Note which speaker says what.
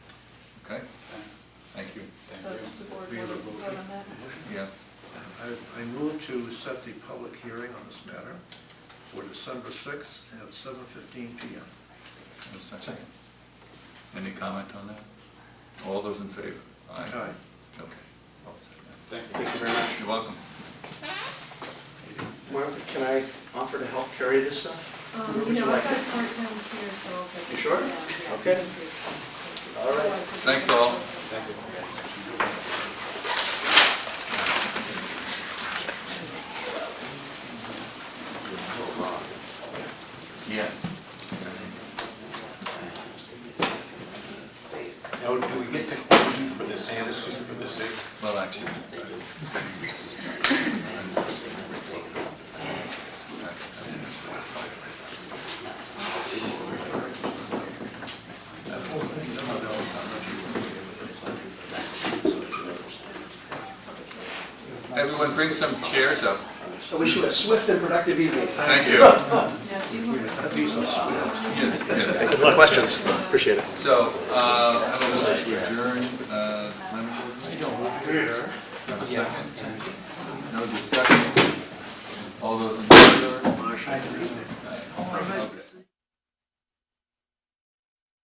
Speaker 1: the board
Speaker 2: We
Speaker 1: want to
Speaker 2: revoke
Speaker 1: vote
Speaker 2: it.
Speaker 1: on that?
Speaker 3: Yeah.
Speaker 2: I, I move to set the public hearing on this matter for December sixth at seven fifteen P M.
Speaker 3: In a second. Any comment on that? All those in favor?
Speaker 2: Aye.
Speaker 3: Okay. All set.
Speaker 4: Thank you very much.
Speaker 3: You're welcome.
Speaker 4: Martha, can I offer to help carry this stuff? Where
Speaker 1: Um,
Speaker 4: would
Speaker 1: you
Speaker 4: you
Speaker 1: know, I've
Speaker 4: like
Speaker 1: got
Speaker 4: it?
Speaker 1: current plans here, so I'll take it.
Speaker 4: You sure?
Speaker 1: Yeah, yeah,
Speaker 4: Okay.
Speaker 1: thank you. Thank you.
Speaker 4: All right.
Speaker 1: Otherwise, we'll
Speaker 3: Thanks,
Speaker 1: take
Speaker 3: all.
Speaker 1: it sometime.
Speaker 3: Yeah.
Speaker 5: Now, do we get to hold you for this Anderson for the sixth?
Speaker 3: Well, actually. Everyone bring some chairs up.
Speaker 4: I wish you a swift and productive evening.
Speaker 3: Thank you.
Speaker 1: Yeah, if you want to-
Speaker 2: That'd be so swift.
Speaker 3: Yes, yes.
Speaker 4: Questions? Appreciate it.
Speaker 3: So, uh, have a motion to adjourn, uh, planning board? Have a second? No discussion? All those in favor?
Speaker 2: Marcia,